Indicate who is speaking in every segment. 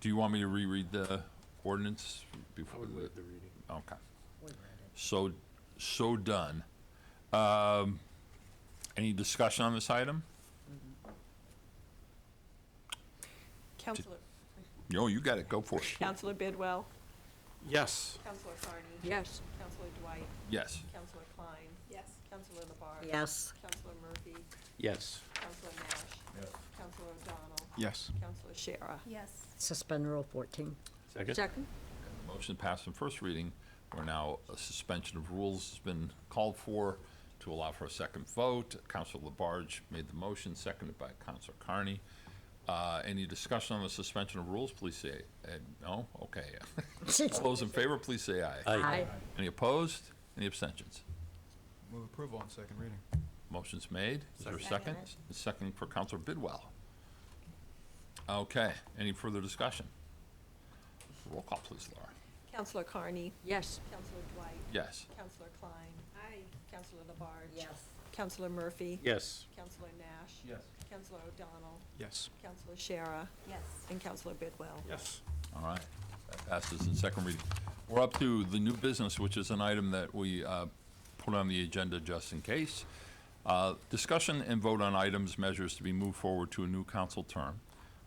Speaker 1: Do you want me to reread the ordinance
Speaker 2: I
Speaker 1: before
Speaker 2: would
Speaker 1: the,
Speaker 2: waive the reading.
Speaker 1: okay. So, so done. Um, any discussion on this item?
Speaker 3: Counselor,
Speaker 1: No, you got it, go for it.
Speaker 3: Counselor Bidwell,
Speaker 2: Yes.
Speaker 3: Counselor Carney.
Speaker 4: Yes.
Speaker 3: Counselor Dwight,
Speaker 1: Yes.
Speaker 3: Counselor Klein. Yes. Counselor LeBarge.
Speaker 4: Yes.
Speaker 3: Counselor Murphy,
Speaker 2: Yes.
Speaker 3: Counselor Nash. Yes. Counselor O'Donnell,
Speaker 2: Yes.
Speaker 3: Counselor Shara.
Speaker 5: Yes.
Speaker 4: Suspend Rule 14.
Speaker 2: Second?
Speaker 4: Second?
Speaker 1: Motion passed on first reading. We're now, a suspension of rules has been called for to allow for a second vote. Counselor Labarge made the motion, seconded by Counselor Carney. Uh, Any discussion on the suspension of rules, please say, eh, no? Okay. All those in favor, please say aye.
Speaker 4: Aye.
Speaker 1: Any opposed? Any abstentions?
Speaker 6: Move approval on second reading.
Speaker 1: Motion's made. Is there a second?
Speaker 4: Second.
Speaker 1: Second for Counselor Bidwell. Okay, any further discussion? Roll call, please, Laura.
Speaker 3: Counselor Carney,
Speaker 4: Yes.
Speaker 3: Counselor Dwight,
Speaker 1: Yes.
Speaker 3: Counselor Klein. Aye. Counselor LeBarge.
Speaker 4: Yes.
Speaker 3: Counselor Murphy.
Speaker 2: Yes.
Speaker 3: Counselor Nash.
Speaker 6: Yes.
Speaker 3: Counselor O'Donnell,
Speaker 6: Yes.
Speaker 3: Counselor Shara,
Speaker 5: Yes.
Speaker 3: and Counselor Bidwell.
Speaker 2: Yes.
Speaker 1: All right, that passes in second reading. We're up to the new business, which is an item that we uh, put on the agenda just in case. Uh, Discussion and vote on items, measures to be moved forward to a new council term,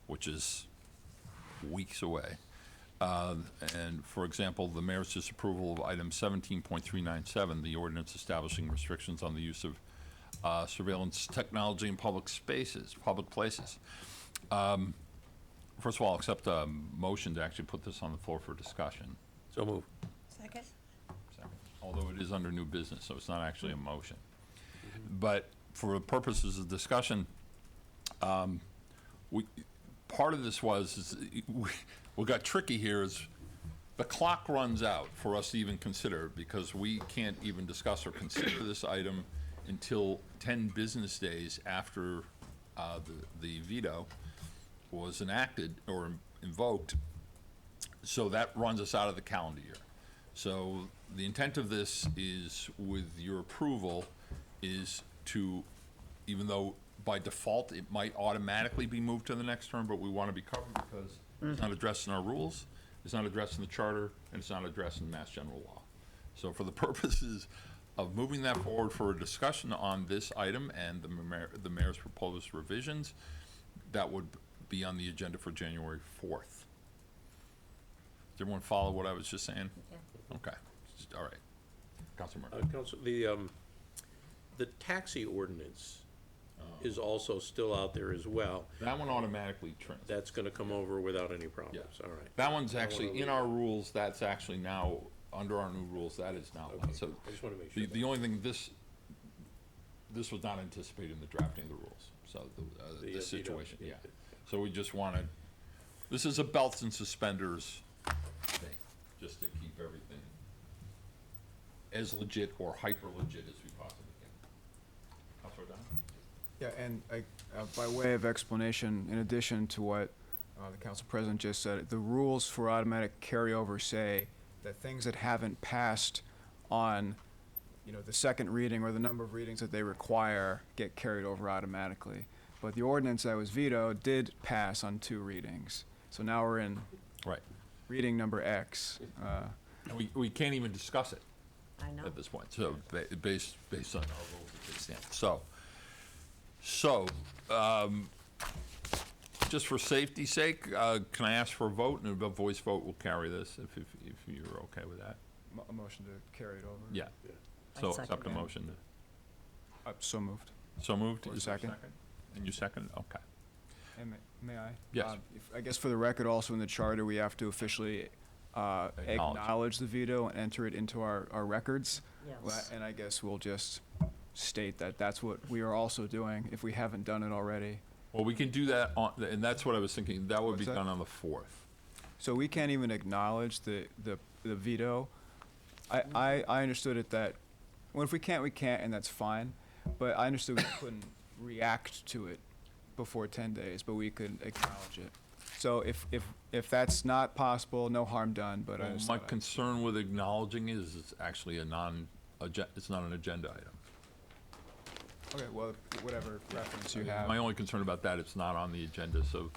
Speaker 1: which is weeks away. Uh, And, for example, the mayor's disapproval of item 17.397, the ordinance establishing restrictions on the use of uh, surveillance technology in public spaces, public places. First of all, I'll accept a motion to actually put this on the floor for discussion.
Speaker 2: So move.
Speaker 5: Second?
Speaker 1: Although it is under new business, so it's not actually a motion. But for the purposes of discussion, um, we, part of this was, is we- what got tricky here is the clock runs out for us to even consider because we can't even discuss or consider this item until 10 business days after uh, the the veto was enacted or invoked so that runs us out of the calendar year. So the intent of this is, with your approval, is to, even though by default it might automatically be moved to the next term, but we want to be covered because it's not addressed in our rules, it's not addressed in the charter, and it's not addressed in Mass General Law. So for the purposes of moving that forward for a discussion on this item and the mayor, the mayor's proposed revisions, that would be on the agenda for January fourth. Did everyone follow what I was just saying? Okay, Just- all right. Councilor Murphy.
Speaker 2: Council, the, um, the taxi ordinance
Speaker 1: Oh.
Speaker 2: is also still out there as well.
Speaker 1: That one automatically trends.
Speaker 2: That's gonna come over without any problems,
Speaker 1: Yeah.
Speaker 2: all right.
Speaker 1: That one's actually in our rules, that's actually now, under our new rules, that is now, allowed. so.
Speaker 2: I just wanna make
Speaker 1: The,
Speaker 2: sure.
Speaker 1: the only thing, this, this was not anticipated in the drafting of the rules, so the, uh,
Speaker 2: The, uh,
Speaker 1: this
Speaker 2: veto.
Speaker 1: situation, yeah. So we just wanted, this is a belts and suspenders thing, just to keep everything as legit or hyper legit as we possibly can. Counselor O'Donnell?
Speaker 6: Yeah, and I, uh, by way of explanation, in addition to what uh, the council president just said, the rules for automatic carryover say that things that haven't passed on, you know, the second reading or the number of readings that they require get carried over automatically. But the ordinance that was vetoed did pass on two readings. So now we're in
Speaker 1: Right.
Speaker 6: reading number X. Uh,
Speaker 1: And we, we can't even discuss it
Speaker 4: I know.
Speaker 1: at this point, so, ba- based, based on our rules as they stand. So, so, um, just for safety's sake, uh, can I ask for a vote, and a voice vote will carry this, if, if, if you're okay with that?
Speaker 6: mo- a motion to carry it over?
Speaker 1: Yeah,
Speaker 2: Yeah.
Speaker 4: I
Speaker 1: so
Speaker 4: second
Speaker 1: accept the
Speaker 4: that.
Speaker 1: motion.
Speaker 6: Uh, So moved.
Speaker 1: So moved?
Speaker 6: Or
Speaker 1: Is there a
Speaker 6: second.
Speaker 1: And you second, okay.
Speaker 6: And may- May I?
Speaker 1: Yes.
Speaker 6: Uh, if- I guess for the record, also in the charter, we have to officially uh,
Speaker 1: Acknowledge.
Speaker 6: acknowledge the veto and enter it into our, our records.
Speaker 4: Yes.
Speaker 6: And I guess we'll just state that that's what we are also doing, if we haven't done it already.
Speaker 1: Well, we can do that on, and that's what I was thinking, that would be
Speaker 6: What's that?
Speaker 1: done on the fourth.
Speaker 6: So we can't even acknowledge the, the, the veto. I, I, I understood it that, well, if we can't, we can't, and that's fine. But I understood we couldn't react to it before ten days, but we could acknowledge it. So if, if, if that's not possible, no harm done, but I
Speaker 1: Well,
Speaker 6: just
Speaker 1: My
Speaker 6: thought I-
Speaker 1: concern with acknowledging is, it's actually a non, it's not an agenda item.
Speaker 6: Okay, well, whatever reference you
Speaker 1: My
Speaker 6: have.
Speaker 1: only concern about that, it's not on the agenda, so